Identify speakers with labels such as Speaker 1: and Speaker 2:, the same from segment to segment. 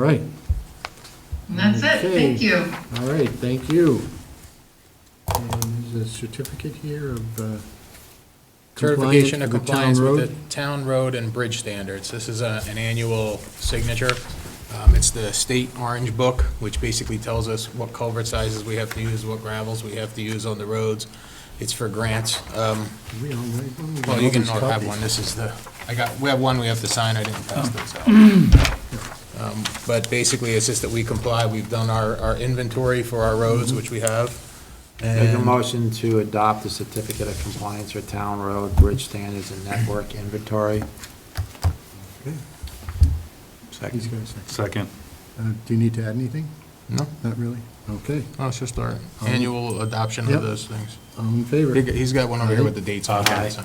Speaker 1: All right,
Speaker 2: And That's it,
Speaker 1: Okay.
Speaker 2: thank you.
Speaker 1: all right, thank you. And there's a certificate here of uh, compliance
Speaker 3: Certification
Speaker 1: for
Speaker 3: of
Speaker 1: the
Speaker 3: compliance
Speaker 1: town
Speaker 3: with
Speaker 1: road.
Speaker 3: the town road and bridge standards. This is a- an annual signature. Um, It's the state orange book, which basically tells us what culvert sizes we have to use, what gravels we have to use on the roads. It's for grants. Um,
Speaker 1: We all right, well, we
Speaker 3: Well,
Speaker 1: got
Speaker 3: you
Speaker 1: all
Speaker 3: can
Speaker 1: these
Speaker 3: all have
Speaker 1: copies.
Speaker 3: one, this is the, I got, we have one we have to sign, I didn't pass those out. Um, But basically, it's just that we comply, we've done our, our inventory for our roads, which we have.
Speaker 4: Make a
Speaker 3: and-
Speaker 4: motion to adopt the certificate of compliance for town road, bridge standards, and network inventory.
Speaker 1: He's
Speaker 3: Second.
Speaker 1: got a second.
Speaker 5: Second.
Speaker 1: Uh, Do you need to add anything?
Speaker 3: No,
Speaker 1: Not really? Okay,
Speaker 3: no, it's just our annual adoption
Speaker 1: Yep.
Speaker 3: of those things.
Speaker 1: all in favor?
Speaker 3: He- He's got one over here with the dates on
Speaker 4: Aye.
Speaker 3: it. so.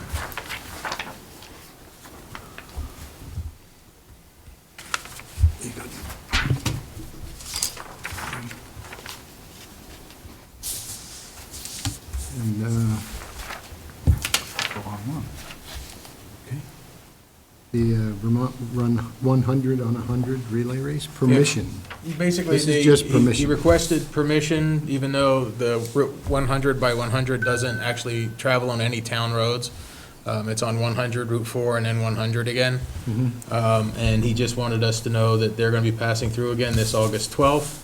Speaker 1: And, uh, okay. The uh, Vermont Run 100 on 100 relay race, permission.
Speaker 3: Basically,
Speaker 1: This is
Speaker 3: they-
Speaker 1: just
Speaker 3: he- He
Speaker 1: permission.
Speaker 3: requested permission, even though the Route 100 by 100 doesn't actually travel on any town roads. Um, It's on 100, Route 4, and then 100 again.
Speaker 1: Mm-hmm.
Speaker 3: Um, And he just wanted us to know that they're going to be passing through again this August 12th,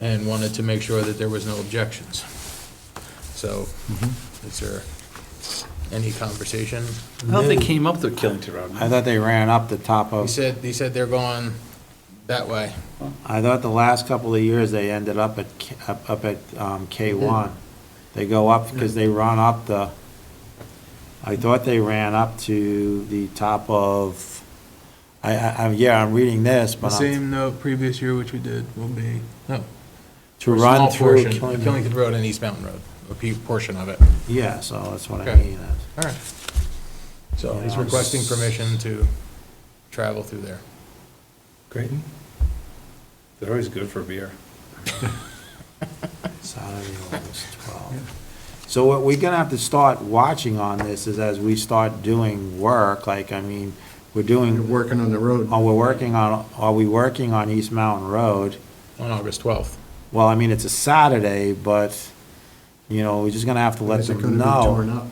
Speaker 3: and wanted to make sure that there was no objections. So,
Speaker 1: Mm-hmm.
Speaker 3: is there any conversation?
Speaker 5: How they came up to Killington
Speaker 4: I
Speaker 5: Road?
Speaker 4: thought they ran up the top
Speaker 3: He
Speaker 4: of,
Speaker 3: said, he said they're going that way.
Speaker 4: I thought the last couple of years, they ended up at, K- up up at um, K1. They go up, because they run up the, I thought they ran up to the top of, I, I, I'm- yeah, I'm reading this,
Speaker 3: The
Speaker 4: but I'm-
Speaker 3: same note previous year, which we did, will be, no,
Speaker 4: to
Speaker 3: or a
Speaker 4: run
Speaker 3: small
Speaker 4: through
Speaker 3: portion,
Speaker 4: Killington.
Speaker 3: Killington Road and East Mountain Road, a pe- portion of it.
Speaker 4: Yeah, so that's what I
Speaker 3: Okay.
Speaker 4: mean.
Speaker 3: All right. So he's
Speaker 4: Yeah.
Speaker 3: requesting permission to travel through there.
Speaker 5: Great. They're always good for beer.
Speaker 4: Saturday, August 12th. So what we're gonna have to start watching on this is as we start doing work, like, I mean, we're
Speaker 1: You're
Speaker 4: doing,
Speaker 1: working on the road.
Speaker 4: are we working on, are we working on East Mountain Road?
Speaker 3: On August 12th.
Speaker 4: Well, I mean, it's a Saturday, but, you know, we're just gonna have to let
Speaker 1: Is it gonna
Speaker 4: them
Speaker 1: be torn
Speaker 4: know.
Speaker 1: up?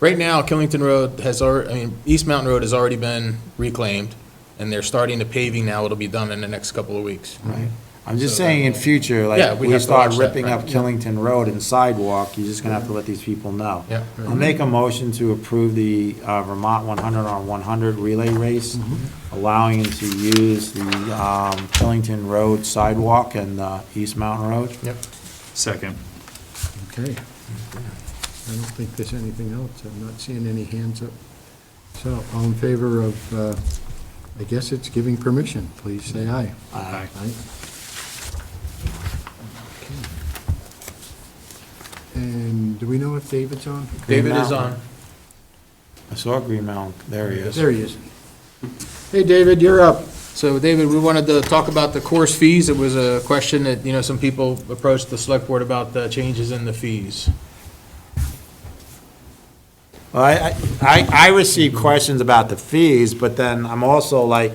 Speaker 3: Right now, Killington Road has, alr- I mean, East Mountain Road has already been reclaimed, and they're starting the paving now. It'll be done in the next couple of weeks.
Speaker 4: Right. I'm just
Speaker 3: So that-
Speaker 4: saying in future,
Speaker 3: Yeah,
Speaker 4: like,
Speaker 3: we
Speaker 4: we
Speaker 3: have to
Speaker 4: start
Speaker 3: watch that,
Speaker 4: ripping
Speaker 3: right.
Speaker 4: up Killington Road and sidewalk, you're just gonna have to let these people know.
Speaker 3: Yeah.
Speaker 4: I'll make a motion to approve the uh, Vermont 100 on 100 relay race,
Speaker 3: Mm-hmm.
Speaker 4: allowing them to use the um, Killington Road sidewalk and uh, East Mountain Road.
Speaker 3: Yep.
Speaker 5: Second.
Speaker 1: Okay. I don't think there's anything else. I'm not seeing any hands up. So all in favor of, uh, I guess it's giving permission, please say aye.
Speaker 5: Aye.
Speaker 1: Aye. And do we know if David's on?
Speaker 3: David is
Speaker 4: Mountain.
Speaker 3: on.
Speaker 4: I saw Green Mountain, there he is.
Speaker 1: There he is. Hey, David, you're up.
Speaker 3: So David, we wanted to talk about the course fees. It was a question that, you know, some people approached the select board about the changes in the fees.
Speaker 4: Well, I, I, I receive questions about the fees, but then I'm also like,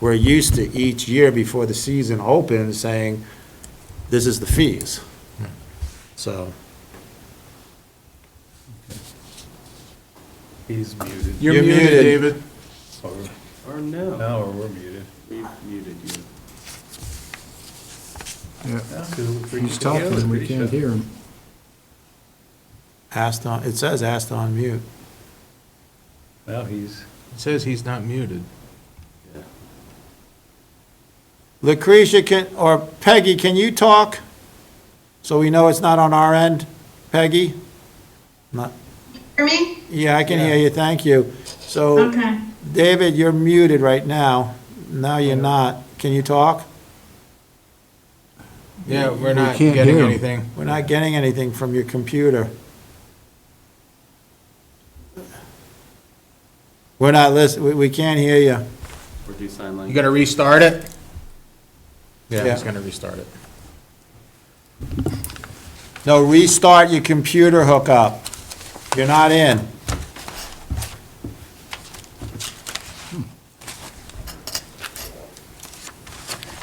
Speaker 4: we're used to each year before the season opens saying, this is the fees. So,
Speaker 5: He's muted.
Speaker 4: You're muted.
Speaker 3: David.
Speaker 5: Or
Speaker 6: Or no,
Speaker 5: No, or we're muted.
Speaker 6: we muted you.
Speaker 1: Yeah, He's
Speaker 5: He's
Speaker 1: talking, and we can't hear him.
Speaker 4: asked on, it says asked on mute.
Speaker 5: No, he's,
Speaker 3: It Says he's not muted.
Speaker 4: Lucretia can, or Peggy, can you talk? So we know it's not on our end, Peggy? Not,
Speaker 7: Hear me?
Speaker 4: yeah, I can hear you, thank you. So,
Speaker 7: Okay.
Speaker 4: David, you're muted right now. No, you're not. Can you talk?
Speaker 3: Yeah, we're
Speaker 1: We
Speaker 3: not
Speaker 1: can't
Speaker 3: getting
Speaker 1: hear him.
Speaker 3: anything.
Speaker 4: We're not getting anything from your computer. We're not listening, we, we can't hear you.
Speaker 6: Or do sign
Speaker 3: You
Speaker 6: language.
Speaker 3: gotta restart it? Yeah,
Speaker 4: Yeah.
Speaker 3: he's gonna restart it.
Speaker 4: No, restart your computer hookup. You're not in.